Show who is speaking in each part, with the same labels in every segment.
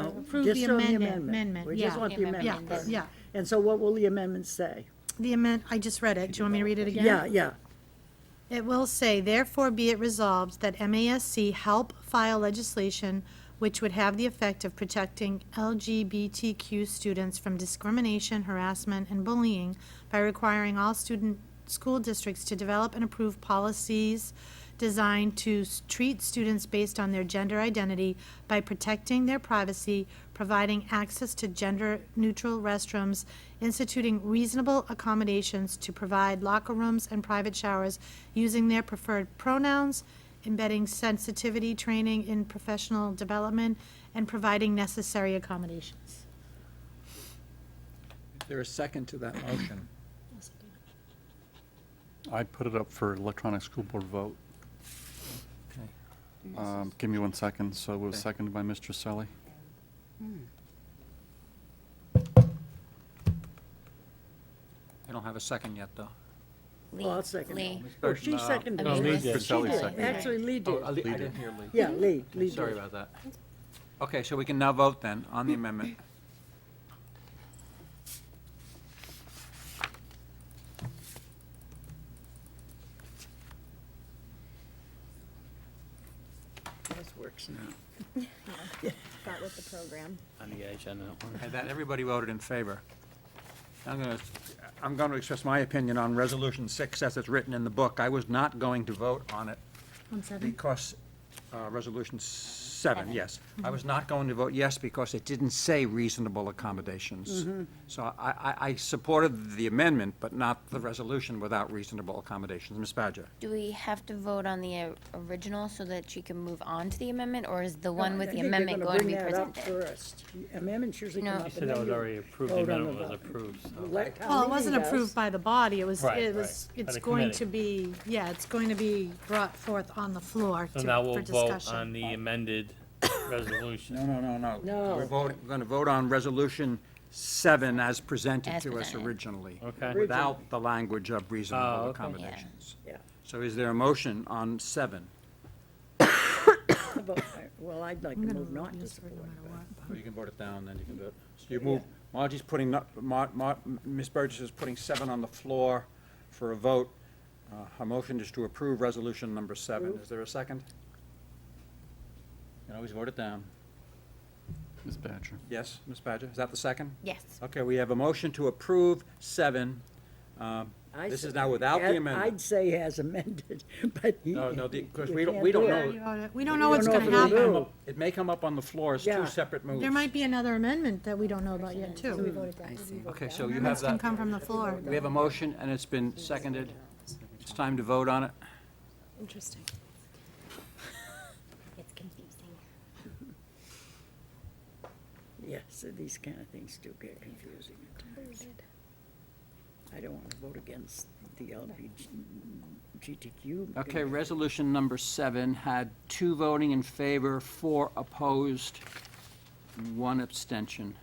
Speaker 1: approve
Speaker 2: Just
Speaker 1: the
Speaker 2: on
Speaker 1: amendment, amendment,
Speaker 2: We just
Speaker 1: yeah.
Speaker 2: want the
Speaker 1: Yeah,
Speaker 2: amendment first.
Speaker 1: yeah.
Speaker 2: And so what will the amendment say?
Speaker 1: The amend, I just read it. Do you want me to read it again?
Speaker 2: Yeah, yeah.
Speaker 1: It will say, therefore be it resolved that MASC help file legislation which would have the effect of protecting LGBTQ students from discrimination, harassment, and bullying by requiring all student, school districts to develop and approve policies designed to s- treat students based on their gender identity by protecting their privacy, providing access to gender-neutral restrooms, instituting reasonable accommodations to provide locker rooms and private showers using their preferred pronouns, embedding sensitivity training in professional development, and providing necessary accommodations.
Speaker 3: Is there a second to that motion?
Speaker 4: I put it up for electronic school board vote.
Speaker 3: Okay.
Speaker 4: Um, Give me one second. So it was
Speaker 3: Okay.
Speaker 4: seconded by Mr. Selly.
Speaker 3: I don't have a second yet, though.
Speaker 2: Well, I'll second it.
Speaker 5: Lee.
Speaker 2: Oh, she
Speaker 3: uh,
Speaker 2: seconded
Speaker 5: Oh,
Speaker 2: it.
Speaker 5: Lee
Speaker 4: did.
Speaker 2: She did,
Speaker 4: Seconded.
Speaker 2: actually Lee
Speaker 3: Oh,
Speaker 2: did.
Speaker 3: I li- I didn't hear Lee.
Speaker 2: Yeah, Lee, Lee did.
Speaker 3: Sorry about that. Okay, so we can now vote then on the amendment.
Speaker 2: This works now.
Speaker 5: Got with the program.
Speaker 6: on the agenda.
Speaker 3: Okay, that, everybody voted in favor. I'm going to, I'm going to express my opinion on Resolution 6 as it's written in the book. I was not going to vote on it
Speaker 1: One second.
Speaker 3: because, uh, Resolution 7, yes. I was not going to vote yes because it didn't say reasonable accommodations. So I, I- I supported the amendment, but not the resolution without reasonable accommodations. Ms. Badger?
Speaker 5: Do we have to vote on the uh, original so that she can move on to the amendment, or is the one
Speaker 2: No, I
Speaker 5: with the
Speaker 2: think they're
Speaker 5: amendment
Speaker 2: gonna
Speaker 5: going to be
Speaker 2: bring that up
Speaker 5: presented?
Speaker 2: First, amendments usually
Speaker 5: No.
Speaker 2: come up.
Speaker 5: You
Speaker 6: She said that was already approved, the amendment was approved, so.
Speaker 1: Well, it wasn't approved by the body, it was,
Speaker 6: Right,
Speaker 1: it was,
Speaker 6: right. By
Speaker 1: it's
Speaker 6: the
Speaker 1: going to
Speaker 6: committee.
Speaker 1: be, yeah, it's going to be brought forth on the floor to-
Speaker 6: So now
Speaker 1: for
Speaker 6: we'll vote on
Speaker 1: discussion.
Speaker 6: the amended
Speaker 3: No,
Speaker 6: resolution.
Speaker 3: no, no, no.
Speaker 2: No.
Speaker 3: We're voting, we're going to vote on Resolution 7 as presented
Speaker 5: As
Speaker 3: to us
Speaker 5: presented.
Speaker 3: originally.
Speaker 6: Okay.
Speaker 3: Without the language of
Speaker 6: Oh,
Speaker 3: reasonable
Speaker 6: okay.
Speaker 3: accommodations.
Speaker 2: Yeah.
Speaker 3: So is there a motion on 7?
Speaker 2: Well, I'd like to
Speaker 1: I'm gonna
Speaker 2: move not to
Speaker 1: use it no
Speaker 2: support.
Speaker 1: matter
Speaker 2: but-
Speaker 1: what, but-
Speaker 3: Oh, You can vote it down, then you can vote. So you move, Margie's putting, not- Mar- Mar- Ms. Burgess is putting 7 on the floor for a vote. Uh, Her motion is to approve Resolution Number 7. Is there a second? You can always vote it down.
Speaker 4: Ms. Badger.
Speaker 3: Yes, Ms. Badger, is that the second?
Speaker 5: Yes.
Speaker 3: Okay, we have a motion to approve seven. Um,
Speaker 2: I
Speaker 3: This is
Speaker 2: said-
Speaker 3: now without
Speaker 2: I'd-
Speaker 3: the
Speaker 2: I'd
Speaker 3: amendment.
Speaker 2: say as amended, but. you-
Speaker 3: No, no, because
Speaker 2: you
Speaker 3: we don't,
Speaker 2: can't
Speaker 3: we don't
Speaker 2: do
Speaker 1: We
Speaker 2: it.
Speaker 1: already
Speaker 3: know.
Speaker 1: voted. We don't know what's
Speaker 2: don't
Speaker 1: gonna
Speaker 2: know if it'll
Speaker 1: happen.
Speaker 2: do.
Speaker 3: It may come up on the floor as
Speaker 2: Yeah.
Speaker 3: two separate moves.
Speaker 1: There might be another amendment that we don't know about yet, too.
Speaker 3: Okay, so you have
Speaker 1: Amendments can
Speaker 3: that.
Speaker 1: come from the floor.
Speaker 3: We have a motion, and it's been seconded. It's time to vote on it.
Speaker 1: Interesting.
Speaker 5: It's confusing.
Speaker 2: Yeah, so these kind of things do get confusing at times. I don't want to vote against the LGBTQ.
Speaker 3: Okay, resolution number seven had two voting in favor, four opposed, one abstention.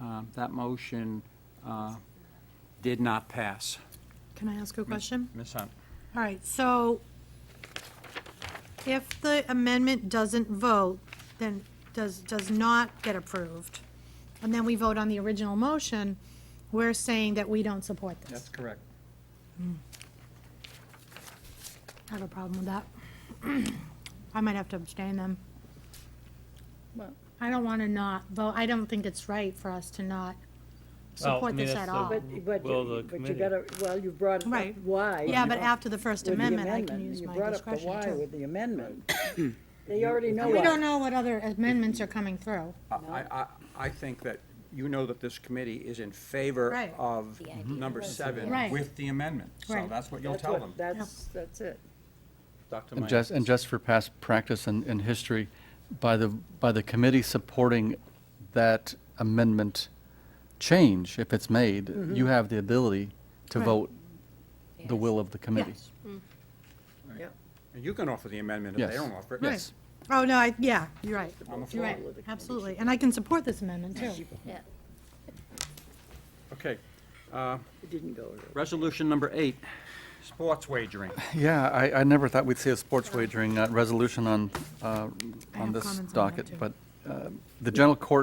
Speaker 3: Um, That motion uh, did not pass.
Speaker 1: Can I ask a question?
Speaker 3: Ms. Hunt?
Speaker 1: All right, so if the amendment doesn't vote, then does, does not get approved, and then we vote on the original motion, we're saying that we don't support this.
Speaker 3: correct.
Speaker 1: I have a problem with that. I might have to abstain then.
Speaker 2: Well-
Speaker 1: I don't want to not vote, I don't think it's right for us to not support
Speaker 6: mean,
Speaker 1: this at
Speaker 6: that's the-
Speaker 1: all.
Speaker 2: But, but,
Speaker 6: Will the
Speaker 2: you- but you
Speaker 6: committee-
Speaker 2: gotta, well, you brought up
Speaker 1: Right.
Speaker 2: why.
Speaker 1: Yeah,
Speaker 2: you
Speaker 1: but
Speaker 2: know,
Speaker 1: after the First
Speaker 2: with the
Speaker 1: Amendment, I can
Speaker 2: amendment.
Speaker 1: use
Speaker 2: You
Speaker 1: my
Speaker 2: brought up the
Speaker 1: discretion
Speaker 2: why
Speaker 1: too.
Speaker 2: With the amendment. They already know
Speaker 1: We
Speaker 2: why.
Speaker 1: don't know what other amendments are coming through.
Speaker 3: I, I, I think that you know that this committee is in favor
Speaker 1: Right.
Speaker 3: of
Speaker 5: The idea.
Speaker 3: number seven
Speaker 1: Right.
Speaker 3: with the amendment. So
Speaker 1: Right.
Speaker 3: that's what you'll
Speaker 2: That's
Speaker 3: tell
Speaker 2: what-
Speaker 3: them.
Speaker 2: That's, that's it.
Speaker 3: Dr.
Speaker 4: And
Speaker 3: Meyer.
Speaker 4: just, and just for past practice and, and history, by the, by the committee supporting that amendment change, if it's made, you have the ability to
Speaker 1: Mm-hmm. Right.
Speaker 4: vote the will of the committee.
Speaker 1: Yes.
Speaker 2: Yeah.
Speaker 3: And You can offer the amendment if they
Speaker 4: Yes.
Speaker 3: don't offer it.
Speaker 4: Yes.
Speaker 1: Oh, no, I, yeah, you're right.
Speaker 3: On the
Speaker 1: You're
Speaker 3: floor.
Speaker 1: right, absolutely. And I can support this amendment, too.
Speaker 5: Yeah.
Speaker 3: Okay.
Speaker 2: It didn't go to.
Speaker 3: Resolution number eight, sports wagering.
Speaker 4: Yeah, I, I never thought we'd see a sports wagering uh, resolution on, uh,
Speaker 1: I
Speaker 4: on
Speaker 1: have
Speaker 4: this
Speaker 1: comments on that,
Speaker 4: docket,
Speaker 1: too.
Speaker 4: but uh, the general court